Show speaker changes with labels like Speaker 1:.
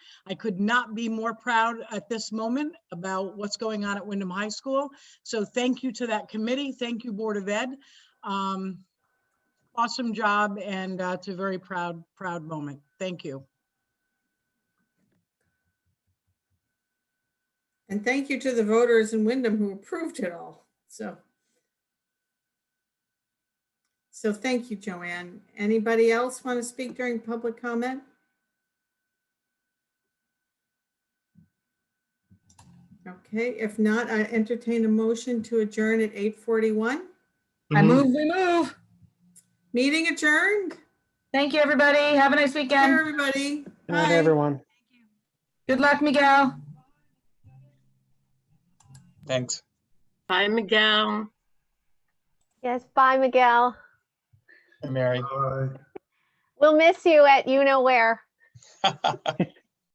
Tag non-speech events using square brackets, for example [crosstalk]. Speaker 1: I could not be more proud at this moment about what's going on at Wyndham High School. So thank you to that committee. Thank you, Board of Ed. Um, Awesome job and uh, it's a very proud, proud moment. Thank you.
Speaker 2: And thank you to the voters in Wyndham who approved it all, so. So thank you, Joanne. Anybody else want to speak during public comment? Okay, if not, I entertain a motion to adjourn at 8:41.
Speaker 3: I move, we move.
Speaker 2: Meeting adjourned.
Speaker 3: Thank you, everybody. Have a nice
Speaker 2: Bye,
Speaker 3: weekend.
Speaker 2: everybody.
Speaker 4: Good night,
Speaker 2: Bye.
Speaker 4: everyone.
Speaker 3: Good luck, Miguel.
Speaker 5: Thanks.
Speaker 6: Hi, Miguel.
Speaker 7: Yes, bye, Miguel.
Speaker 5: Mary. [laughs]
Speaker 7: We'll miss you at you know where.